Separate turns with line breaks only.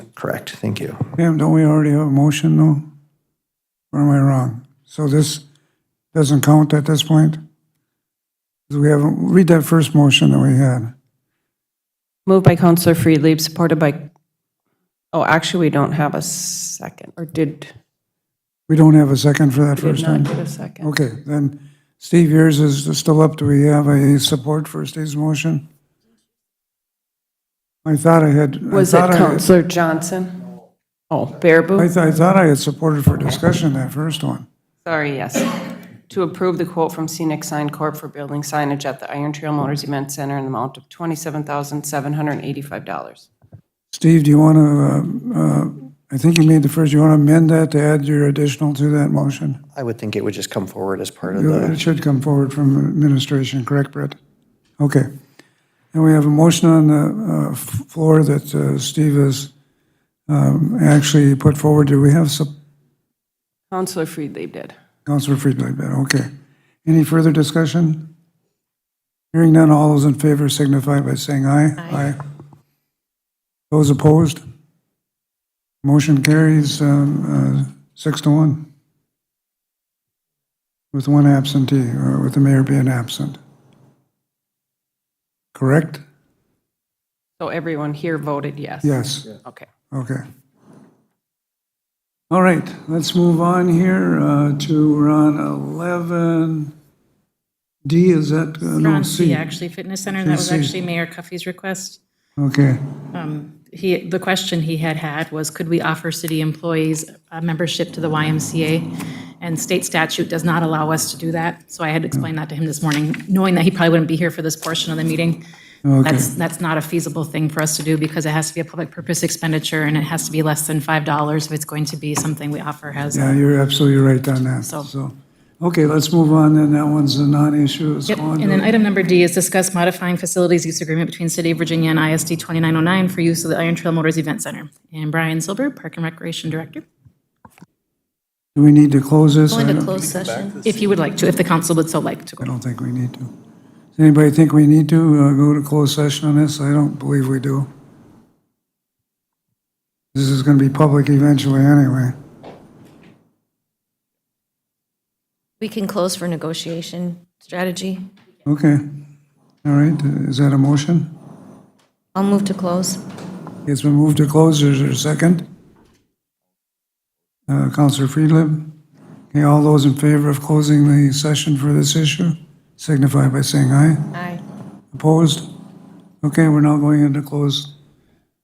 Correct, thank you.
Pam, don't we already have a motion, though? Or am I wrong? So this doesn't count at this point? 'Cause We haven't, read that first motion that we had.
Moved by Counselor Freely, supported by, oh, actually, we don't have a second, or did,
We don't have a second for that
did
first
not
one?
get a second.
Okay, then, Steve, yours is still up. Do we have a support for Steve's motion? I thought I had. I
Was it
thought I had-
Counselor Johnson? Oh,
I
Baraboo?
th- I thought I had supported for discussion that first one.
Sorry, yes. To approve the quote from Scenic Sign Corp. for building signage at the Iron Trail Motors Event Center in the amount of $27,785.
Steve, do you want to, I think you made the first, you want to amend that to add your additional to that motion?
I would think it would just come forward as part of
It
the,
should come forward from administration, correct, Brett? Okay. And we have a motion on the uh, f- floor that uh, Steve has um, actually put forward. Do we have some,
Counselor Freely did.
Counselor Friedlander? Okay. Any further discussion? Hearing none, all those in favor signify by saying aye. Aye. Those opposed? Motion carries um, uh, six to one. With one absentee, or with the mayor being absent. Correct?
So everyone here voted yes?
Yes,
Okay.
okay. All right, let's move on here uh, to, we're on 11. D, is that? uh,
We're
No,
on C,
C.
actually, fitness center, and that was
C.
actually Mayor Cuffey's request.
Okay,
He, the question he had had was, could we offer city employees a membership to the YMCA? And state statute does not allow us to do that, so I had explained that to him this morning, knowing that he probably wouldn't be here for this portion of the meeting. That's, that's not a feasible thing for us to do, because it has to be a public purpose expenditure, and it has to be less than $5 if it's going to be something we offer as a
yeah, you're absolutely right on that,
So-
so. Okay, let's move on, then, that one's a non-issue, it's
Yep,
on
and then item number D is discuss modifying facilities use agreement between City of Virginia and ISD 2909 for use of the Iron Trail Motors Event Center. And Brian Silber, Park and Recreation Director,
Do we need to close this?
going
I
to
don't-
closed session. If you would like to, if the council would so like to
I
go.
don't think we need to. Does anybody think we need to uh, go to closed session on this? I don't believe we do. This is gonna be public eventually anyway.
We can close for negotiation strategy.
Okay, all right, Uh, is that a motion?
I'll move to close.
It's been moved to close, is there a second? Uh, Counselor Friedland? Okay, all those in favor of closing the session for this issue signify by saying aye.
Aye.
Opposed? Okay, we're now going into closed